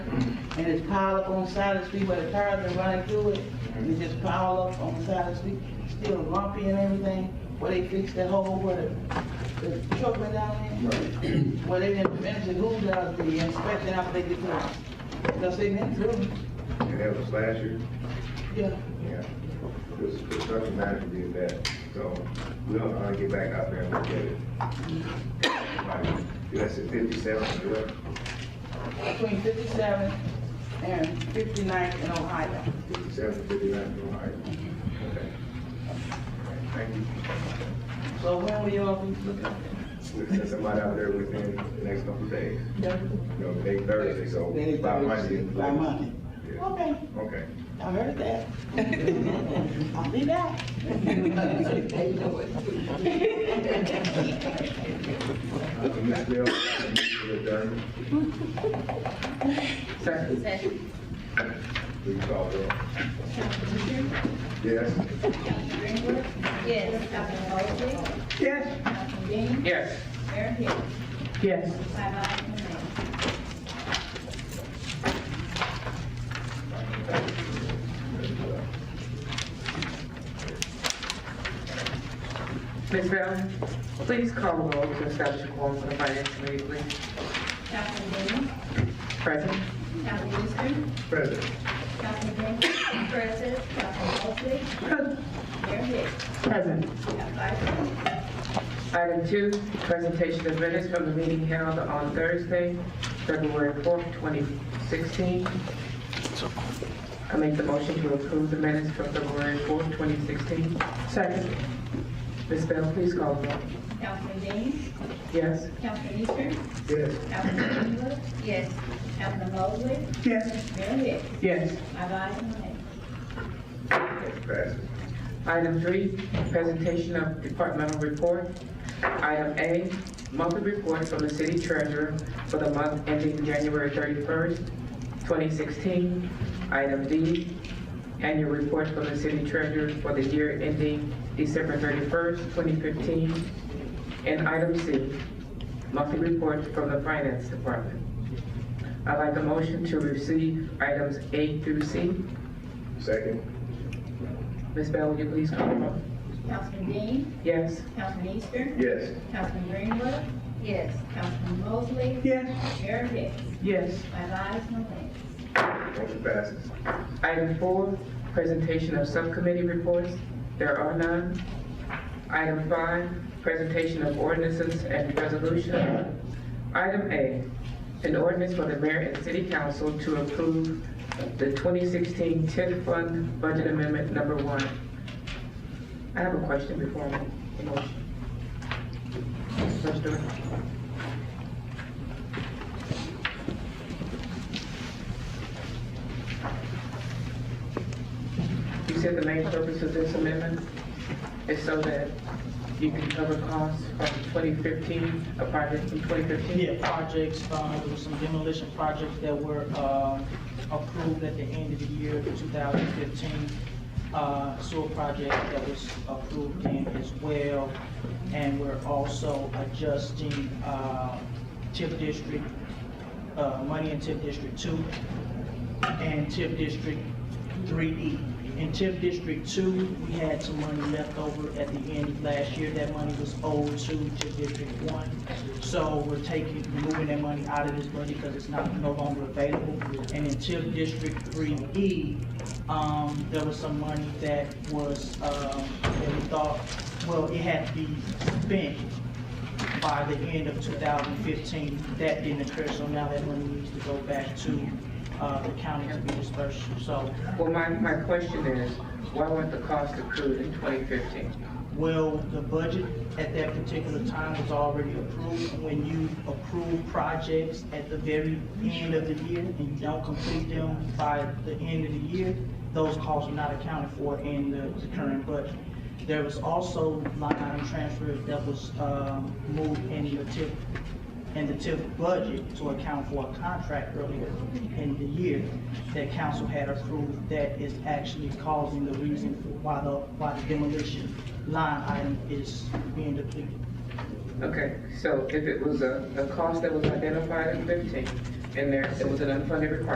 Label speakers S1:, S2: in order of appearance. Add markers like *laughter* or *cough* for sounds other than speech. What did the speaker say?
S1: and it's piled up on the side of the street where the cars are running through it. And it just piled up on the side of the street, still lumpy and everything, where they fixed that hole where the, the truck went down there. Where they didn't finish the who does the inspection after they get through. Because they been through,
S2: And that was last year?
S1: yeah.
S2: Yeah. This construction manager did that, so we don't know how to get back out there and look at it. Like, That's at fifty-seven, correct?
S1: between 57 and 59th in Ohio.
S2: Fifty-seven, fifty-nine, all right. Okay. Thank you.
S1: So when will y'all be looking? at
S2: We'll send somebody out there within the next couple of days.
S1: that?
S2: You know, they Thursday, so
S1: Then it's
S2: by Monday.
S1: Thursday, By Monday.
S2: Yeah.
S1: Okay,
S2: Okay.
S1: I heard that. *laughs* I'll be back.
S2: Ms. Bell, Mr. Attorney,
S3: Sessions.
S2: please call the roll. Yes.
S3: Councilman Greenwood? Yes. Councilman Oakley?
S4: Yes.
S3: Councilman Dean?
S4: Yes.
S3: Mayor Hill?
S4: Yes.
S3: Five ayes, no nays.
S4: Ms. Bell, please call the roll to establish a quorum for the finance committee, please.
S3: Councilman Dean?
S4: Present.
S3: Councilman Eastern?
S2: President.
S3: Councilman Greenwood? Present. Councilman Oakley? Mayor Hill?
S4: Present.
S3: We have five ayes.
S4: Item two, presentation of minutes from the meeting held on Thursday, February fourth, twenty sixteen. I make the motion to approve the minutes from February fourth, twenty sixteen. Second. Ms. Bell, please call the roll.
S3: Councilman Dean?
S4: Yes.
S3: Councilman Eastern?
S2: Yes.
S3: Councilman Greenwood? Yes. Councilman Oakley?
S4: Yes.
S3: Mayor Hill?
S4: Yes.
S3: Five ayes, no nays.
S2: Passes.
S4: Item three, presentation of departmental report. Item A, monthly report from the city treasurer for the month ending January 31st, 2016. Item D, annual report from the city treasurer for the year ending December 31st, 2015. And item C, monthly report from the finance department. I'd like a motion to receive items A through C.
S2: Second.
S4: Ms. Bell, will you please call the roll?
S3: Councilman Dean?
S4: Yes?
S3: Councilman Eastern?
S2: Yes.
S3: Councilman Greenwood? Yes. Councilman Mosley?
S4: Yes.
S3: Mayor Hicks?
S4: Yes.
S3: Five ayes, no nays.
S2: Motion passes.
S4: Item four, presentation of subcommittee reports. There are none. Item five, presentation of ordinances and resolution. Item A, an ordinance for the mayor and city council to approve the 2016 TIF fund budget amendment number one. I have a question before I make the motion. First, do it. You said the main purpose of this amendment is so that you can cover costs from uh, 2015, a project from 2015?
S5: Yeah, projects, uh, there were some demolition projects that were, uh, approved at the end of the year, two thousand fifteen. Uh, sewer project that was approved in as well. And we're also adjusting, uh, TIP district, uh, money in TIP district two and TIP district three E. In TIP district two, we had some money left over at the end of last year. That money was owed to TIP district one. So we're taking, moving that money out of this budget because it's not, no longer available. And in TIP district three E, um, there was some money that was, um, that we thought, well, it had to be spent by the end of 2015. That didn't occur, so now that money needs to go back to uh, the county to be dispersed. So,
S4: Well, my, my question is, why weren't the costs accrued in 2015?
S5: well, the budget at that particular time was already approved. When you approve projects at the very end of the year and you don't complete them by the end of the year, those costs are not accounted for in the the current budget. There was also line item transfer that was um, moved in the TIP and the TIF budget to account for a contract earlier in the year that council had approved that is actually causing the reason for why the, why the demolition line item is being depleted.
S4: Okay, so if it was a, a cost that was identified in 15, and there, it was an unfunded requirement